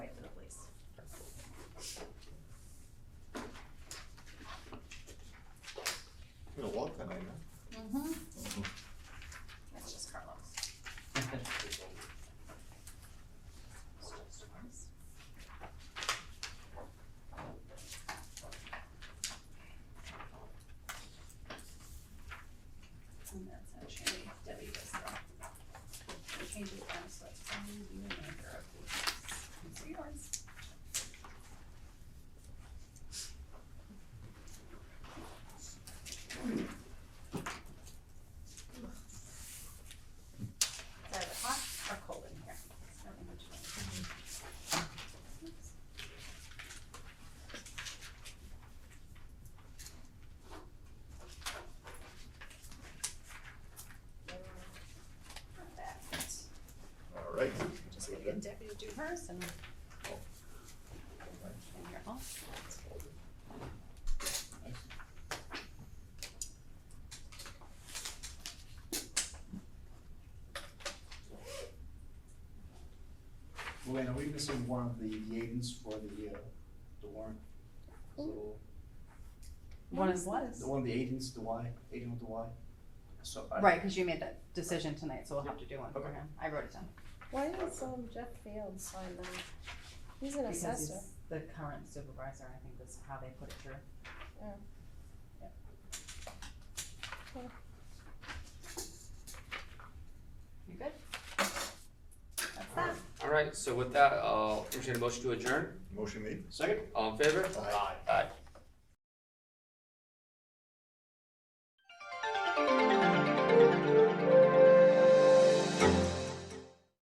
Mm-hmm. ones. Is it hot or cold in here? It's not in between. Oops. Not bad. All right. Just gonna get Debbie to do hers and. And you're off. Luann, are we missing one of the Yadens for the, uh, the warrant? Little- One is, The one of the agents, the Y, agent with the Y? So I. right, because you made that decision tonight, so we'll have to do one for Okay. him. I wrote it down. Why is um Jeff Fields sign them? He's an Because he's assessor. the current supervisor, I think that's how they put it through. You good? That's that. All right, so with that, I'll entertain a uh, motion to adjourn. Motion made. Second? All in favor? Aye. Aye.